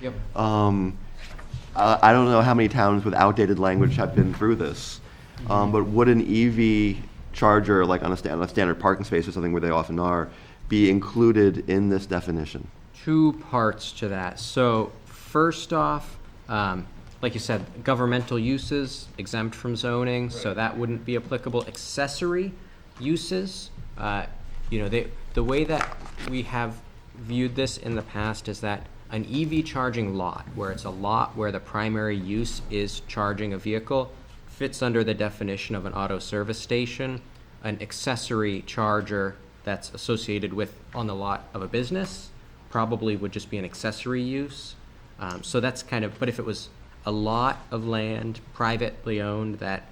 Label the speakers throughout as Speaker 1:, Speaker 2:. Speaker 1: Yep.
Speaker 2: Um, uh, I don't know how many towns with outdated language have been through this, um, but would an EV charger, like on a, sta- on a standard parking space or something where they often are, be included in this definition?
Speaker 1: Two parts to that. So first off, um, like you said, governmental uses exempt from zoning, so that wouldn't be applicable. Accessory uses, uh, you know, they, the way that we have viewed this in the past is that an EV charging lot, where it's a lot where the primary use is charging a vehicle, fits under the definition of an auto service station, an accessory charger that's associated with on the lot of a business probably would just be an accessory use. Um, so that's kind of, but if it was a lot of land privately owned that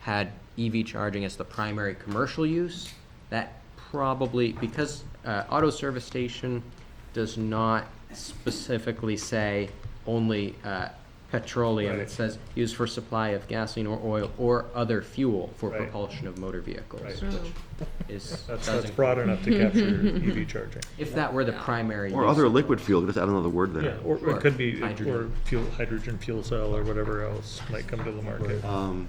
Speaker 1: had EV charging as the primary commercial use, that probably, because uh, auto service station does not specifically say only uh, petroleum, it
Speaker 3: Right.
Speaker 1: says used for supply of gasoline or oil or other fuel for
Speaker 3: Right.
Speaker 1: propulsion of motor vehicles,
Speaker 3: Right.
Speaker 1: which is, does
Speaker 3: That's, that's
Speaker 1: include-
Speaker 3: broad enough to capture EV charging.
Speaker 1: If that were the primary
Speaker 2: Or
Speaker 1: use
Speaker 2: other
Speaker 1: of the
Speaker 2: liquid fuel, just add another word
Speaker 3: Yeah,
Speaker 2: there.
Speaker 3: or
Speaker 1: Sure.
Speaker 3: it could be, or
Speaker 1: Hydrogen.
Speaker 3: fuel, hydrogen fuel cell or whatever else might come to the market.
Speaker 2: Um,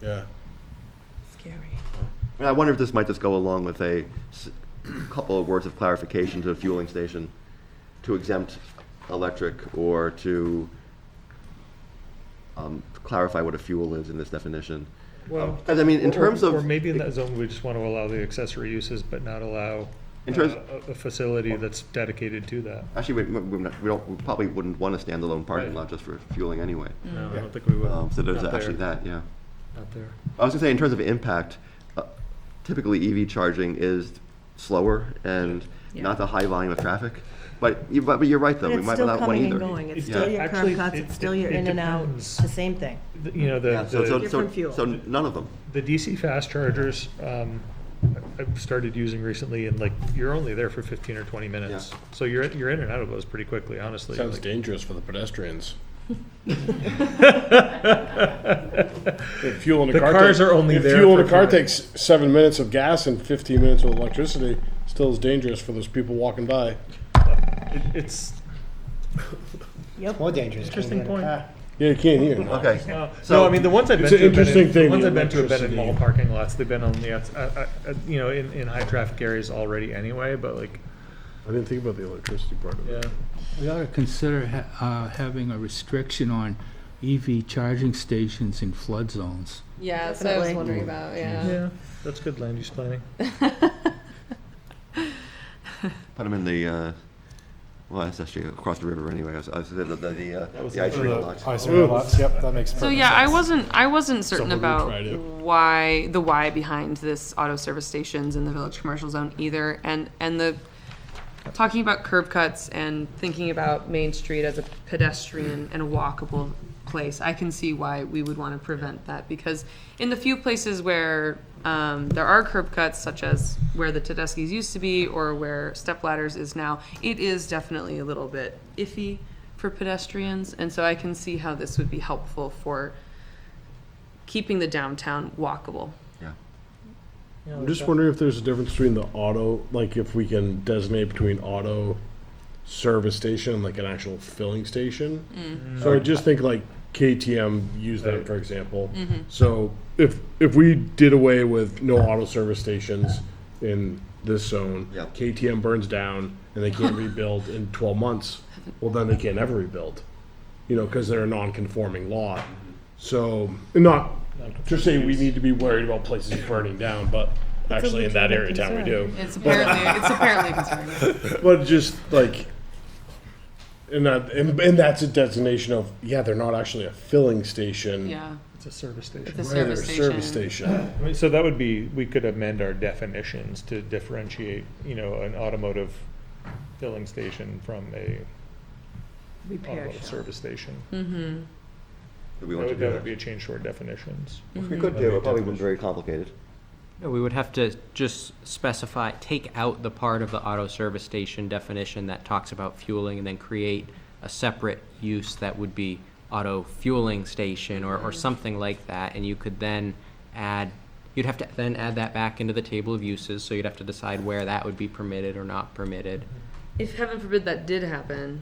Speaker 4: Yeah.
Speaker 5: Scary.
Speaker 2: and I wonder if this might just go along with a s- couple of words of clarification to a fueling station to exempt electric or to um, clarify what a fuel is in this definition.
Speaker 3: Well,
Speaker 2: Because I mean, in
Speaker 3: Um, or-
Speaker 2: terms
Speaker 3: Or
Speaker 2: of,
Speaker 3: maybe in that zone, we just want to allow the accessory uses, but not allow
Speaker 2: In terms-
Speaker 3: uh, a a facility that's dedicated to that.
Speaker 2: actually, we, we- we don't, we probably wouldn't want a standalone parking
Speaker 3: Right.
Speaker 2: lot just for fueling anyway.
Speaker 3: No, I don't think we would.
Speaker 2: Um, so there's
Speaker 3: Not
Speaker 2: actually
Speaker 3: there.
Speaker 2: that, yeah.
Speaker 3: Not there.
Speaker 2: I was gonna say, in terms of impact, uh, typically EV charging is slower and not the high volume of traffic. But, you- but but you're right, though,
Speaker 5: But
Speaker 2: we
Speaker 5: it's
Speaker 2: might
Speaker 5: still
Speaker 2: not want
Speaker 5: coming and
Speaker 2: either.
Speaker 5: going. It's
Speaker 3: It's
Speaker 5: still
Speaker 2: not-
Speaker 5: your curb
Speaker 3: actually,
Speaker 5: cuts,
Speaker 3: it-
Speaker 5: it's still
Speaker 3: it-
Speaker 5: your
Speaker 3: it
Speaker 5: in and out,
Speaker 3: depends.
Speaker 5: it's the same thing.
Speaker 3: The- You know,
Speaker 2: Yeah,
Speaker 3: the,
Speaker 2: so- so-
Speaker 3: the,
Speaker 2: so-
Speaker 5: Different fuel.
Speaker 2: So none of them.
Speaker 3: the DC fast chargers, um, I- I've started using recently and like, you're only there for fifteen or twenty minutes.
Speaker 2: Yeah.
Speaker 3: So you're, you're in and out of those pretty quickly, honestly.
Speaker 4: Sounds
Speaker 3: like-
Speaker 4: dangerous for the pedestrians. If fuel in a
Speaker 3: The
Speaker 4: car
Speaker 3: cars
Speaker 4: take-
Speaker 3: are only
Speaker 4: if
Speaker 3: there
Speaker 4: fuel
Speaker 3: for
Speaker 4: in a car
Speaker 3: fuel.
Speaker 4: takes seven minutes of gas and 15 minutes of electricity, still is dangerous for those people walking by.
Speaker 3: It- It's,
Speaker 5: Yep.
Speaker 6: More dangerous.
Speaker 3: Interesting point.
Speaker 4: Yeah, you can't hear. no.
Speaker 2: Okay.
Speaker 3: no, I mean, the ones I've been
Speaker 4: It's
Speaker 3: to,
Speaker 4: an
Speaker 3: have been
Speaker 4: interesting
Speaker 3: in- the
Speaker 4: thing,
Speaker 3: ones
Speaker 4: the
Speaker 3: I've been to have been in
Speaker 4: electricity.
Speaker 3: mall parking lots, they've been on the, outs- uh, uh, uh, you know, in, in high traffic areas already anyway, but like,
Speaker 4: I didn't think about the electricity part of
Speaker 3: yeah.
Speaker 4: it.
Speaker 7: We ought to consider ha- uh, having a restriction on EV charging stations in flood zones.
Speaker 8: Yeah, that's what I was
Speaker 5: Definitely.
Speaker 8: wondering about. Yeah.
Speaker 3: Yeah, that's good land use planning.
Speaker 2: Put them in the, uh, well, that's actually across the river anyway. I was, I was, the, the, the, uh,
Speaker 3: was
Speaker 2: the ice
Speaker 3: the-
Speaker 2: cream
Speaker 3: the
Speaker 2: lot.
Speaker 6: Ice cream lots, yep, that makes perfect
Speaker 8: So
Speaker 6: sense.
Speaker 8: yeah, I wasn't I wasn't certain
Speaker 4: Someone who
Speaker 8: about
Speaker 4: tried it.
Speaker 8: why the why behind this auto service stations in the village commercial zone either, and and the talking about curb cuts and thinking about Main Street as a pedestrian and a walkable place, I can see why we would want to prevent that because in the few places where um, there are curb cuts, such as where the Tedeschi's used to be or where step ladders is now, it is definitely a little bit iffy for pedestrians, and so I can see how this would be helpful for keeping the downtown walkable.
Speaker 2: Yeah.
Speaker 4: I'm
Speaker 5: Oh,
Speaker 4: just wondering if there's a difference between the auto, like if we can designate between auto service station and like an actual filling station. So I just think like KTM used that for example. So if if we did away with no auto service stations in this zone,
Speaker 2: Yeah.
Speaker 4: KTM burns down and they can't rebuild in 12 months. Well, then they can't ever rebuild, you know, because they're a non-conforming lot. So not just say we need to be worried about places burning down, but actually in that area of town we do.
Speaker 8: It's apparently it's apparently concerning.
Speaker 4: But just like, and that and, and that's a designation of yeah, they're not actually a filling station.
Speaker 8: Yeah,
Speaker 3: It's a service station.
Speaker 4: They're
Speaker 8: the
Speaker 4: a
Speaker 8: service station.
Speaker 4: service station.
Speaker 3: I mean, So that would be, we could amend our definitions to differentiate, you know, an automotive filling station from a
Speaker 5: Repair
Speaker 3: automotive
Speaker 5: shop.
Speaker 3: service station.
Speaker 2: Do we
Speaker 3: That
Speaker 2: want to
Speaker 3: would,
Speaker 2: do
Speaker 3: that would be a
Speaker 2: that?
Speaker 3: change to our definitions.
Speaker 2: We could do it, probably wouldn't be very complicated.
Speaker 1: No, we would have to just specify, take out the part of the auto service station definition that talks about fueling and then create a separate use that would be auto fueling station or, or something like that. And you could then add, you'd have to then add that back into the table of uses, so you'd have to decide where that would be permitted or not permitted.
Speaker 8: If heaven forbid that did happen,